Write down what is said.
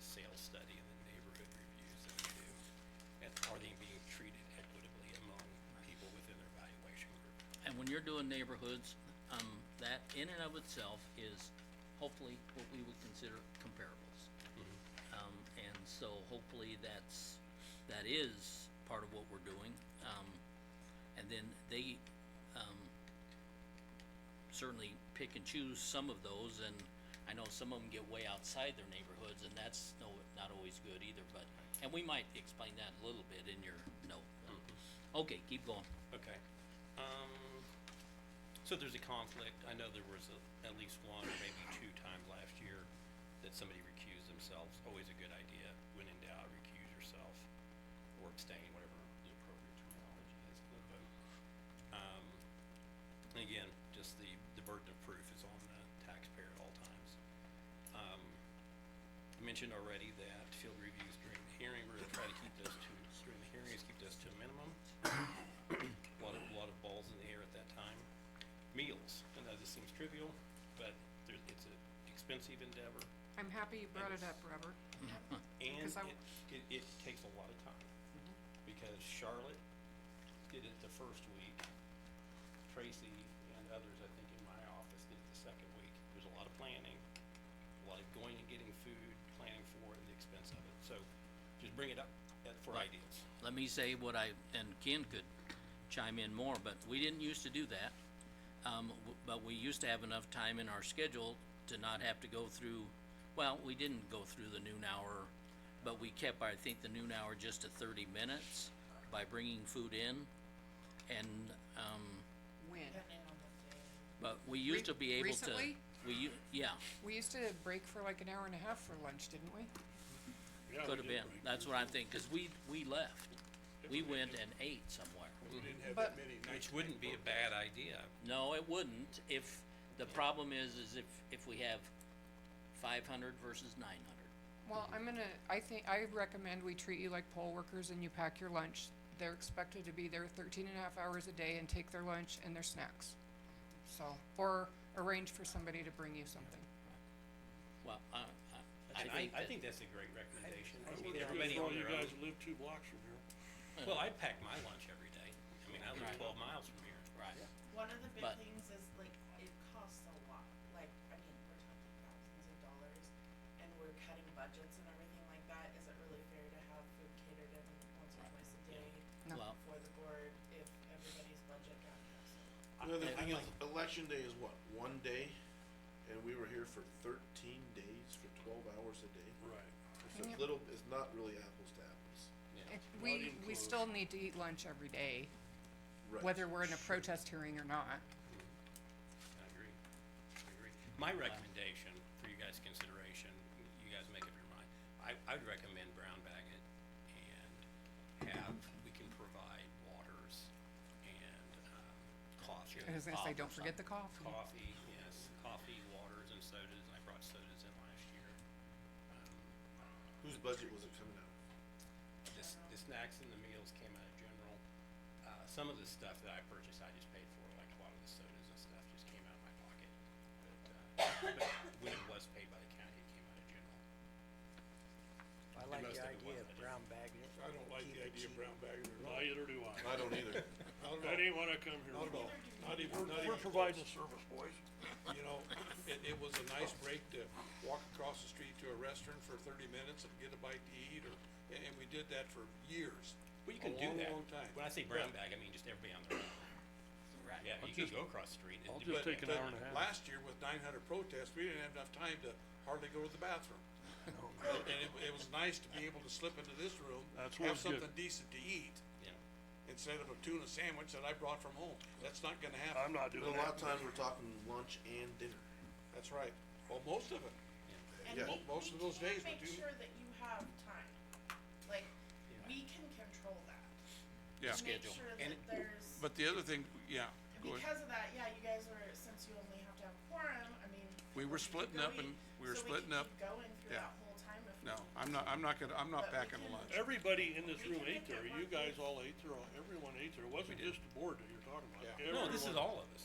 study and the neighborhood reviews that we do, and are they being treated equitably among people within their valuation group? And when you're doing neighborhoods, um, that in and of itself is hopefully what we would consider comparables. Um, and so hopefully that's, that is part of what we're doing. Um, and then they, um, certainly pick and choose some of those and I know some of them get way outside their neighborhoods and that's no, not always good either, but, and we might explain that a little bit in your note. Okay, keep going. Okay, um, so there's a conflict, I know there was a- at least one or maybe two times last year that somebody recused themselves, always a good idea, when in doubt, recuse yourself, or abstain, whatever the appropriate terminology is for the vote. Um, and again, just the, the burden of proof is on the taxpayer at all times. Um, I mentioned already that field reviews during the hearing, we're gonna try to keep those to, during the hearings, keep those to a minimum lot of, lot of balls in the air at that time. Meals, I know this seems trivial, but there, it's an expensive endeavor, I'm happy you brought it up, Robert. and Because I- Mm-hmm. it, it, it takes a lot of time. Because Charlotte did it the first week, Tracy and others, I think, in my office did it the second week. There's a lot of planning, a lot of going and getting food, planning for it, and the expense of it, so just bring it up uh, for ideas. let me say what I, and Ken could chime in more, but we didn't used to do that. Um, w- but we used to have enough time in our schedule to not have to go through, well, we didn't go through the noon hour, but we kept, I think, the noon hour just to thirty minutes by bringing food in. And, um, When? but we used to be able to. recently? We, u- yeah, We used to break for like an hour and a half for lunch, didn't we? could Yeah, Oh, have we did been, break. that's what I'm thinking, cause we, we left. We went and ate somewhere. We didn't have But- that many nights. Which wouldn't be a bad idea, No, it wouldn't, if, the problem is, is if, if we have five hundred versus nine hundred. Well, I'm gonna, I think, I recommend we treat you like poll workers and you pack your lunch. They're expected to be there thirteen and a half hours a day and take their lunch and their snacks. So, or arrange for somebody to bring you something. Well, I, I, And I think I, I that, think that's a great recommendation. I I mean, wouldn't do it everybody for on all you their guys own. who live two blocks from here. Well, I pack my lunch every day. I mean, I live Right. twelve miles from here. right, One of the big But- things is like, it costs a lot, like, I mean, we're talking thousands of dollars, and we're cutting budgets and everything like that, is it really fair to have food catered in once or twice a day No. well, for the board if everybody's budget got cut so? Another Yeah, thing is, election day is what, one day? And we were here for thirteen days for twelve hours a day. Right. So Yeah. little, it's not really apples to apples. If Not We, even we close. still need to eat lunch every day, Right. whether we're in a protest hearing or not. I agree, I agree. My recommendation for you guys' consideration, you guys make up your mind, I, I'd recommend brown bag it and have, we can provide waters and, um, coffee. I was gonna pop say, or don't forget the Ah, something. coffee. Coffee, yes, coffee, waters and sodas, I brought sodas in last year. Whose budget was it coming out of? The, s- the snacks and the meals came out of general. Uh, some of the stuff that I purchased, I just paid for, like a lot of the sodas and stuff just came out of my pocket. But, uh, but when it was paid by the county, it came out of general. I like most of the it idea was, of I just- brown bagging it. I don't like Keep the it idea of cheap. brown bagging it. Neither do I. I don't either. I didn't wanna come here. Not even, not even. We're providing a service, boys. You know, it, it was a nice break to walk across the street to a restaurant for thirty minutes and get a bite to eat or, and, and we did that for years. Well, you can do that. A long, long time. When I say brown bag, I mean just everybody on their own. Right. Yeah, you can go across the street. and I'll do just that. take an hour and a half. Last year with nine hundred protests, we didn't have enough time to hardly go to the bathroom. And it, it was nice to be able to slip into this room, That's what have was good. something decent to eat, Yeah. instead of a tuna sandwich that I brought from home. That's not gonna happen. I'm not But doing a that. lot of times we're talking lunch and dinner. That's right. Well, most of it. And Yeah. we, Mo- most of we those days can make we do- sure that you have time, like, we can control that. Yeah. Schedule. Make sure And that there's, But the other thing, yeah, go ahead. because of that, yeah, you guys were, since you only have to have quorum, I mean. We can were keep splitting up going, and- we were so splitting can up. keep going through Yeah. that whole time if we no, need I'm not, I'm not gonna, I'm not But we packing can- lunch. Everybody in this We room can ate make that there, work. you guys all ate there, everyone ate there, it wasn't just the board that you're talking about. Yeah. No, this is Everyone. all of us.